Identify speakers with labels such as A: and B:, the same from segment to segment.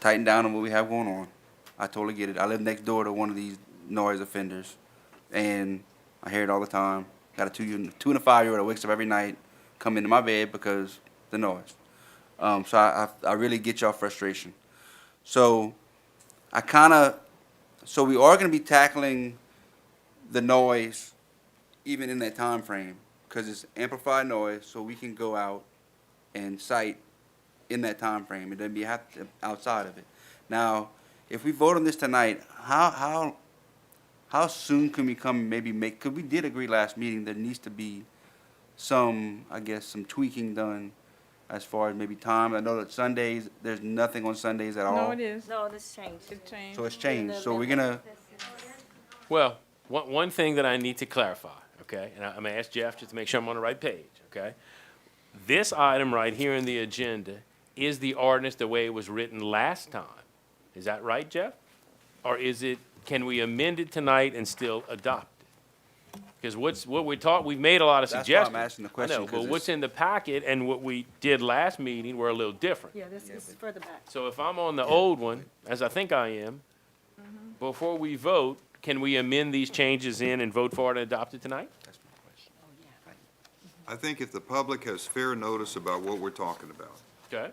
A: tighten down on what we have going on. I totally get it. I live next door to one of these noise offenders, and I hear it all the time. Got a two year- two and a five year old that wakes up every night, come into my bed because the noise. Um, so I, I I really get y'all frustration. So I kind of so we are going to be tackling the noise even in that time frame because it's amplified noise so we can go out and cite in that time frame it doesn't be have to, outside of it now if we vote on this tonight how how how soon can we come and maybe make because we did agree last meeting there needs to be some i guess some tweaking done as far as maybe time i know that sundays there's nothing on sundays at all
B: No, it is.
C: No, this changed.
B: It changed.
A: so it's changed so we're gonna
D: Well, one, one thing that I need to clarify, okay, and I- I'm gonna ask Jeff just to make sure I'm on the right page, okay? This item right here in the agenda is the ordinance the way it was written last time. Is that right, Jeff? Or is it, can we amend it tonight and still adopt it? Because what's, what we taught, we've made a lot of
A: That's why I'm
D: suggestions.
A: asking the
D: I know,
A: question, 'cause
D: But what's
A: it's-
D: in the packet and what we did last meeting were a little different.
C: Yeah, this this is further back.
D: So if I'm on the old one, as I think I am, before we vote, can we amend these changes in and vote for it and adopt it tonight?
E: I think if the public has fair notice about what we're talking about,
D: Okay,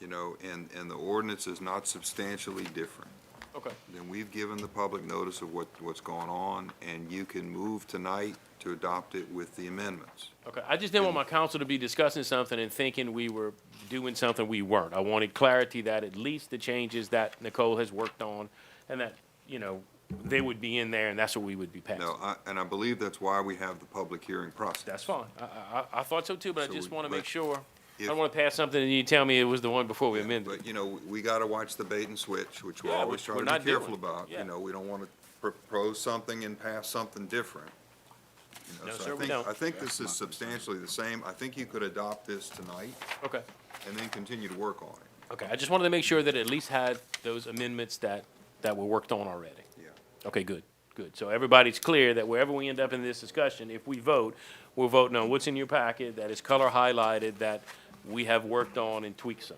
E: you know, and, and the ordinance is not substantially different,
D: okay.
E: then we've given the public notice of what, what's going on, and you can move tonight to adopt it with the amendments.
D: Okay, I just didn't want my council to be discussing something and thinking we were doing something we weren't. I wanted clarity that at least the changes that Nicole has worked on and that, you know, they would be in there and that's what we would be passing.
E: No, I, and I believe that's why we have the public hearing process.
D: That's fine. I, I, I- I thought so too, but I
E: So
D: just
E: we-
D: want to
E: but
D: make sure. I
E: if-
D: don't want to pass something and you tell me it was the one before we amended.
E: But, you know, we- we gotta watch the bait and switch, which we're
D: Yeah,
E: always
D: which
E: trying
D: we're
E: to
D: not
E: be careful
D: doing.
E: about,
D: Yeah.
E: you know, we don't wanna propose something and pass something different. You know,
D: No,
E: so I
D: sir, we
E: think-
D: don't.
E: I think this is substantially the same, I think you could adopt this tonight
D: Okay.
E: and then continue to work on it,
D: Okay, I just wanted to make sure that it at least had those amendments that, that were worked on already.
E: yeah.
D: Okay, good, good. So everybody's clear that wherever we end up in this discussion, if we vote, we're voting on what's in your packet that is color highlighted that we have worked on and tweaked some.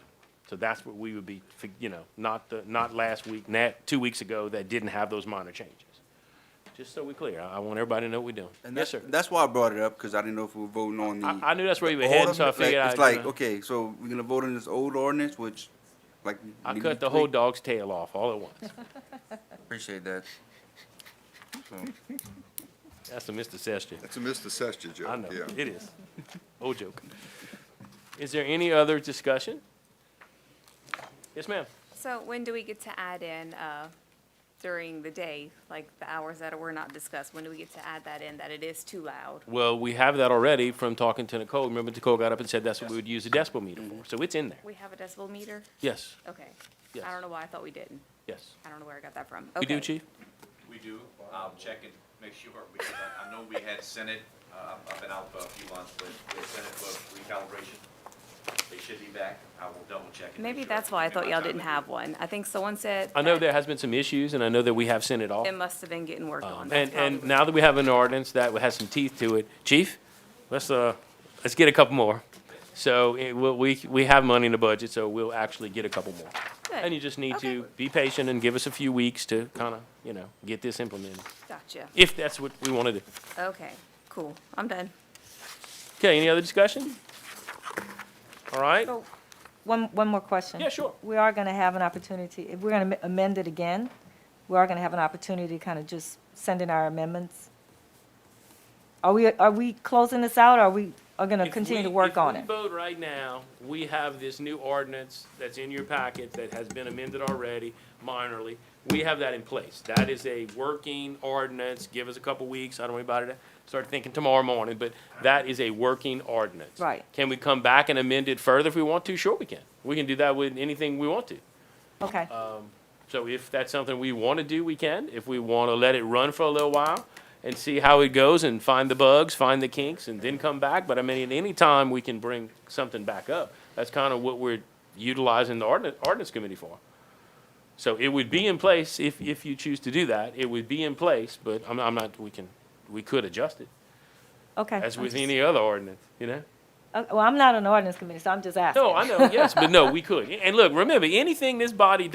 D: So that's what we would be, you know, not the, not last week, not, two weeks ago that didn't have those minor changes. Just so we're clear, I, I want everybody to know what we're doing.
A: And that's,
D: Yes, sir.
A: that's why I brought it up, because I didn't know if we were voting on the.
D: I, I knew that's where you were
A: the
D: heading, so I
A: ordinance. Like,
D: figured I'd.
A: It's
D: you
A: like,
D: know,
A: okay, so we're gonna vote on this old ordinance, which, like.
D: I
A: need
D: cut
A: to
D: the whole
A: tweak?
D: dog's tail off all at once.
A: Appreciate that. So,
D: That's a Mr. Session.
E: That's a Mr. Sestia
D: I know,
E: joke, yeah.
D: it is. Old joke. Is there any other discussion? Yes, ma'am.
F: So when do we get to add in uh, during the day, like the hours that were not discussed? When do we get to add that in, that it is too loud?
D: Well, we have that already from talking to Nicole. Remember Nicole got up and said that's what we would use a decibel meter for, so it's in there.
F: We have a decibel meter?
D: Yes,
F: Okay.
D: Yes.
F: I don't know why I thought we didn't.
D: yes.
F: I don't know where I got that from.
D: We do,
F: Okay.
D: chief?
G: We do. I'll check and make sure, because I, I know we had Senate, uh, I've been out for a few months, but we had Senate for recalibration. They should be back. I will double check. and make
F: Maybe
G: sure.
F: that's why I
G: And
F: thought
G: my
F: y'all
G: time
F: didn't
G: to-
F: have one. I think someone said.
D: I know
F: that
D: there has been some issues, and I know that we have sent it off.
F: It must have been getting worked on.
D: Um,
F: That's
D: And, and
F: probably-
D: now that we have an ordinance that has some teeth to it, chief, let's, uh, let's get a couple more. So, it, we, we- we have money in the budget, so we'll actually get a couple more.
F: Good.
D: And you just need
F: Okay.
D: to be patient and give us a few weeks to kind of, you know, get this implemented,
F: Gotcha.
D: if that's what we want to do.
F: Okay, cool. I'm done.
D: Okay, any other discussion? All right?
C: So- One, one more question.
D: Yeah, sure.
C: We are going to have an opportunity, if we're going to amend it again, we are going to have an opportunity to kind of just send in our amendments. Are we, are we closing this out, or are we, are going to
D: If
C: continue to
D: we-
C: work on
D: If
C: it?
D: we vote right now, we have this new ordinance that's in your packet that has been amended already minorly. We have that in place. That is a working ordinance. Give us a couple weeks. I don't worry about it. Start thinking tomorrow morning, but that is a working ordinance.
C: Right.
D: Can we come back and amend it further if we want to? Sure we can. We can do that with anything we want to.
C: Okay,
D: So if that's something we want to do, we can. If we want to let it run for a little while and see how it goes and find the bugs, find the kinks, and then come back. But I mean, at any time, we can bring something back up. That's kind of what we're utilizing the ordinance, ordinance committee for. So it would be in place if, if you choose to do that. It would be in place, but I'm, I'm not, we can, we could adjust it,
C: okay.
D: uh, as
C: I'm
D: with
C: just-
D: any other ordinance, you know?
C: Uh, Well, I'm not on the ordinance committee, so I'm just asking.
D: No, I know, yes, but no, we could. And look, remember, anything this body